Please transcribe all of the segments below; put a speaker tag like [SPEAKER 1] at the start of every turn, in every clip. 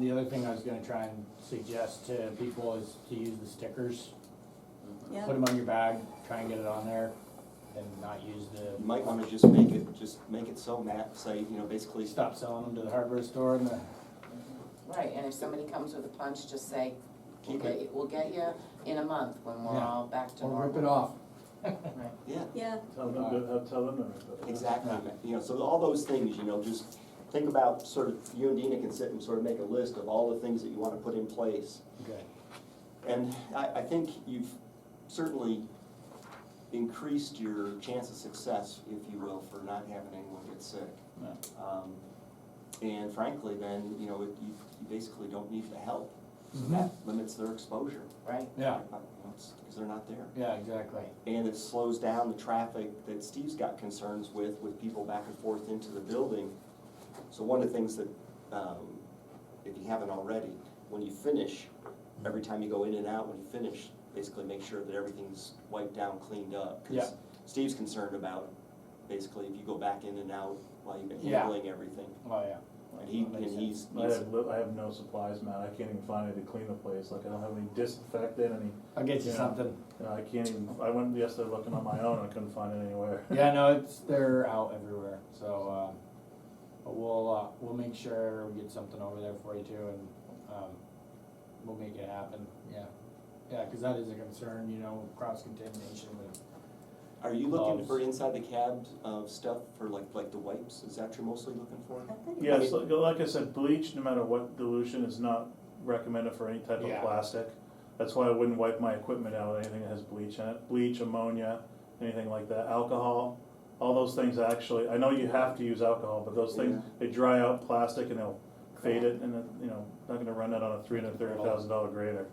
[SPEAKER 1] The other thing I was gonna try and suggest to people is to use the stickers.
[SPEAKER 2] Yeah.
[SPEAKER 1] Put them on your bag, try and get it on there, and not use
[SPEAKER 3] You
[SPEAKER 1] the,
[SPEAKER 3] might wanna just make it, just make it so Matt, say, you know, basically,
[SPEAKER 1] stop selling them to the hardware store and the,
[SPEAKER 4] Right, and if somebody comes with a punch, just say, we'll
[SPEAKER 3] keep
[SPEAKER 4] get,
[SPEAKER 3] it,
[SPEAKER 4] you- we'll get you in a month when we're
[SPEAKER 1] Yeah.
[SPEAKER 4] all back to normal.
[SPEAKER 1] or rip it off.
[SPEAKER 4] Right.
[SPEAKER 3] yeah,
[SPEAKER 2] Yeah,
[SPEAKER 5] Tell them, to- uh, tell them to rip it.
[SPEAKER 3] exactly, Matt. you know, so all those things, you know, just think about sort of, you and Dina can sit and sort of make a list of all the things that you wanna put in place.
[SPEAKER 1] Okay.
[SPEAKER 3] And I, I think you've certainly increased your chance of success, if you will, for not having anyone get sick.
[SPEAKER 1] No.
[SPEAKER 3] Um, And frankly, then, you know, it- you, you basically don't need the help, so that limits their exposure.
[SPEAKER 4] Right,
[SPEAKER 1] Yeah,
[SPEAKER 3] Because they're not there.
[SPEAKER 1] yeah, exactly.
[SPEAKER 4] right,
[SPEAKER 3] And it slows down the traffic that Steve's got concerns with, with people back and forth into the building. So one of the things that, um, if you haven't already, when you finish, every time you go in and out, when you finish, basically make sure that everything's wiped down, cleaned up. 'Cause
[SPEAKER 1] Yeah.
[SPEAKER 3] Steve's concerned about, basically, if you go back in and out while you've been
[SPEAKER 1] Yeah.
[SPEAKER 3] handling everything.
[SPEAKER 1] Oh, yeah.
[SPEAKER 3] And he,
[SPEAKER 1] That makes
[SPEAKER 3] and he's,
[SPEAKER 5] I have, li- I have no supplies, Matt, I can't even find any to clean the place, like, I don't have any disinfectant, any,
[SPEAKER 1] sense. I'll get you
[SPEAKER 5] Yeah.
[SPEAKER 1] something.
[SPEAKER 5] you know, I can't even, I went yesterday looking on my own, I couldn't find it anywhere.
[SPEAKER 1] Yeah, no, it's, they're out everywhere, so, um, but we'll, uh, we'll make sure we get something over there for you too, and, um, we'll make it happen, yeah. Yeah, cause that is a concern, you know, cross contamination with,
[SPEAKER 3] are you looking
[SPEAKER 1] Gloves.
[SPEAKER 3] for inside the cab, uh, stuff for like, like the wipes? Is that what you're mostly looking for?
[SPEAKER 2] I think.
[SPEAKER 5] Yes, like, like I said, bleach, no matter what dilution, is not recommended for any type
[SPEAKER 1] Yeah.
[SPEAKER 5] of plastic. That's why I wouldn't wipe my equipment out with anything that has bleach in it, bleach, ammonia, anything like that, alcohol. All those things actually, I know you have to use alcohol, but those things, they dry out plastic and they'll fade it and, it- you know, not gonna run that on a three hundred thirty thousand dollar grader.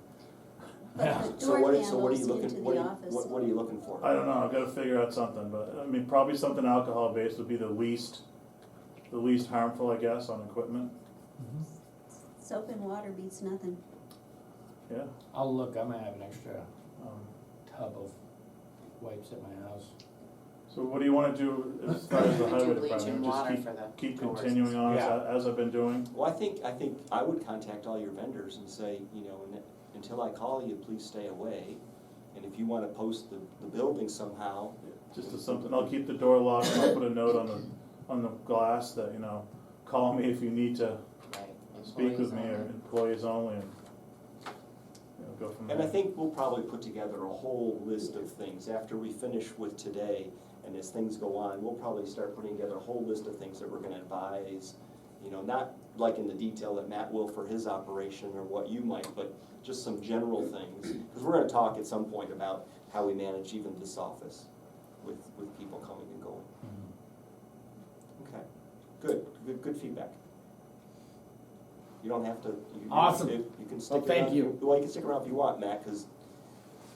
[SPEAKER 2] But the
[SPEAKER 3] So
[SPEAKER 2] door
[SPEAKER 3] what, so what are you
[SPEAKER 2] handles
[SPEAKER 3] looking,
[SPEAKER 2] into
[SPEAKER 3] what
[SPEAKER 2] the
[SPEAKER 3] are you,
[SPEAKER 2] office.
[SPEAKER 3] what, what are you looking for?
[SPEAKER 5] I don't know, I've gotta figure out something, but, I mean, probably something alcohol based would be the least, the least harmful, I guess, on equipment,
[SPEAKER 2] Soap and water beats nothing.
[SPEAKER 5] yeah.
[SPEAKER 1] I'll look, I might have an extra
[SPEAKER 5] Um,
[SPEAKER 1] tub of wipes at my house.
[SPEAKER 5] So what do you wanna do as far as the
[SPEAKER 4] We do
[SPEAKER 5] highway
[SPEAKER 4] bleach and
[SPEAKER 5] department, just
[SPEAKER 4] water
[SPEAKER 5] keep,
[SPEAKER 4] for the
[SPEAKER 5] keep
[SPEAKER 4] doors.
[SPEAKER 5] continuing on as,
[SPEAKER 1] Yeah.
[SPEAKER 5] I- as I've been doing?
[SPEAKER 3] Well, I think, I think I would contact all your vendors and say, you know, "Un- until I call you, please stay away. And if you wanna post the, the building somehow,
[SPEAKER 5] Just as something, I'll keep the door locked, and I'll put a note on the, on the glass that, you know, call me if you need to
[SPEAKER 4] right.
[SPEAKER 5] speak
[SPEAKER 4] Employees
[SPEAKER 5] with me, or
[SPEAKER 4] only.
[SPEAKER 5] employees only, and, you know, go from there.
[SPEAKER 3] and I think we'll probably put together a whole list of things after we finish with today. And as things go on, we'll probably start putting together a whole list of things that we're gonna advise. You know, not like in the detail that Matt will for his operation or what you might, but just some general things. Cause we're gonna talk at some point about how we manage even this office with, with people coming and going. Okay, good, good, good feedback. You don't have to. you- you-
[SPEAKER 1] Awesome.
[SPEAKER 3] You you can stick around.
[SPEAKER 1] thank you.
[SPEAKER 3] Well, you can stick around if you want, Matt, because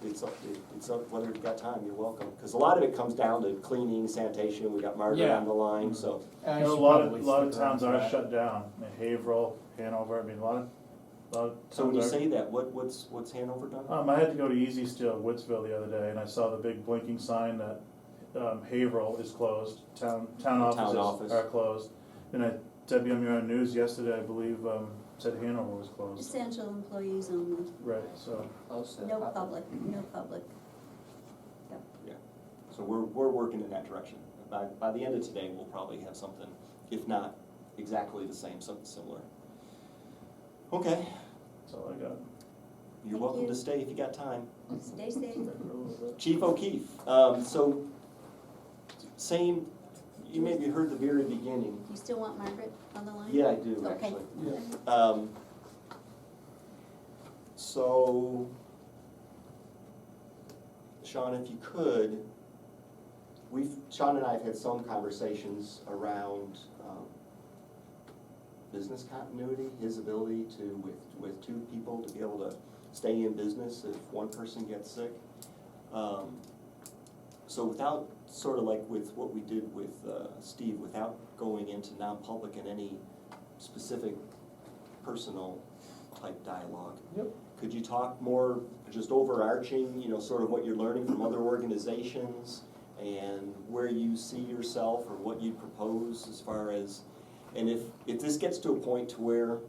[SPEAKER 3] it's up, it- it's up, whether you've got time, you're welcome. Because a lot of it comes down to cleaning, sanitation, we got Margaret
[SPEAKER 1] Yeah. Mm-hmm.
[SPEAKER 3] on the line, so.
[SPEAKER 1] I
[SPEAKER 5] You know, a
[SPEAKER 1] should
[SPEAKER 5] lot of, a
[SPEAKER 1] probably
[SPEAKER 5] lot of
[SPEAKER 1] stick around
[SPEAKER 5] towns
[SPEAKER 1] for
[SPEAKER 5] are
[SPEAKER 1] that.
[SPEAKER 5] shut down, I mean, Haverhill, Hanover, I mean, a lot of, a lot of towns are.
[SPEAKER 3] So when you say that, what, what's, what's Hanover done?
[SPEAKER 1] Uh,
[SPEAKER 5] Um, I had to go to Easy Steel in Woodsville the other day, and I saw the big blinking sign that, um, Haverhill is closed, town, town
[SPEAKER 3] Town
[SPEAKER 5] offices
[SPEAKER 3] office.
[SPEAKER 5] are closed. And I, WMUR News yesterday, I believe, um, said Hanover was closed,
[SPEAKER 2] Essential employees only.
[SPEAKER 5] right, so,
[SPEAKER 4] Close to the
[SPEAKER 2] No
[SPEAKER 4] public.
[SPEAKER 2] public, no public.
[SPEAKER 3] So we're, we're working in that direction. By, by the end of today, we'll probably have something, if not exactly the same, something similar. Okay,
[SPEAKER 5] that's all I got.
[SPEAKER 3] you're
[SPEAKER 2] Thank
[SPEAKER 3] welcome
[SPEAKER 2] you.
[SPEAKER 3] to stay if you got time.
[SPEAKER 2] Stay safe.
[SPEAKER 3] Chief O'Keefe, um, so, same, you maybe heard the very beginning.
[SPEAKER 2] You still want Margaret on the line?
[SPEAKER 3] Yeah, I do,
[SPEAKER 2] Okay.
[SPEAKER 3] actually. Um, so, Sean, if you could, we've, Sean and I have had some conversations around, um, business continuity, his ability to, with, with two people, to be able to stay in business if one person gets sick. Um, so without, sort of like with what we did with, uh, Steve, without going into non-public in any specific personal type dialogue.
[SPEAKER 1] Yep.
[SPEAKER 3] Could you talk more, just overarching, you know, sort of what you're learning from other organizations and where you see yourself or what you propose as far as, and if, if this gets to a point to where